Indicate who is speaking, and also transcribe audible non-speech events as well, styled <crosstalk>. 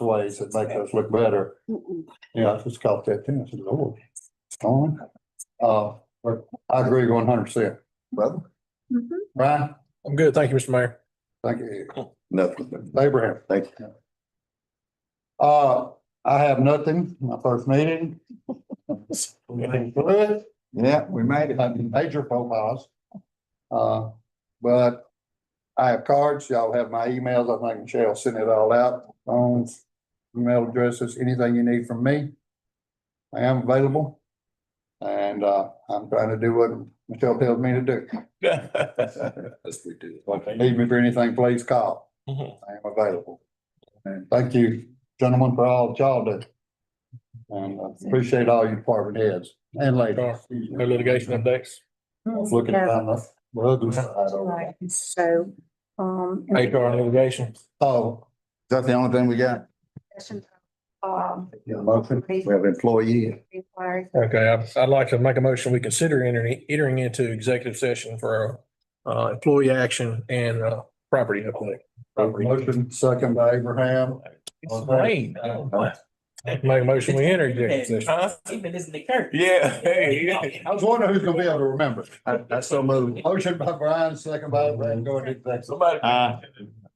Speaker 1: ways that make us look better. Yeah, I just caught that too. I said, Lord, it's gone. Uh, but I agree one hundred percent. Brother?
Speaker 2: Mhm.
Speaker 1: Brian?
Speaker 3: I'm good. Thank you, Mr. Mayor.
Speaker 1: Thank you.
Speaker 4: Nothing.
Speaker 1: Abraham?
Speaker 4: Thank you.
Speaker 1: Uh, I have nothing. My first meeting. Been through it.
Speaker 4: Yeah, we made it.
Speaker 1: I mean, major profiles. Uh, but I have cards, y'all have my emails, I think Michelle sent it all out, phones, email addresses, anything you need from me. I am available. And, uh, I'm trying to do what Michelle tells me to do.
Speaker 4: <laughs> Yes, we do.
Speaker 1: If you need me for anything, please call. I
Speaker 3: Mhm.
Speaker 1: am available. And thank you, gentlemen, for all that y'all do. And I appreciate all you department heads and ladies.
Speaker 3: No litigation updates.
Speaker 1: Looking down the road.
Speaker 2: Right, so, um. and
Speaker 3: HR litigation.
Speaker 1: Oh,
Speaker 4: That's the only thing we got.
Speaker 2: discussion, Um.
Speaker 1: yeah, motion.
Speaker 2: please
Speaker 4: We have employee.
Speaker 2: require-
Speaker 3: Okay, I'd, I'd like to make a motion. We consider entering, entering into executive session for uh, employee action and uh, property update. Property.
Speaker 1: Motion second by Abraham.
Speaker 5: It's rain. Oh, my.
Speaker 3: Make a motion, we enter executive session.
Speaker 5: Huh? Even this in the curtain.
Speaker 4: Yeah.
Speaker 1: I was wondering who's gonna be able to remember.
Speaker 4: I, I so moved.
Speaker 1: Motion by Brian, second by Abraham, go into executive.
Speaker 5: Somebody.
Speaker 4: Uh,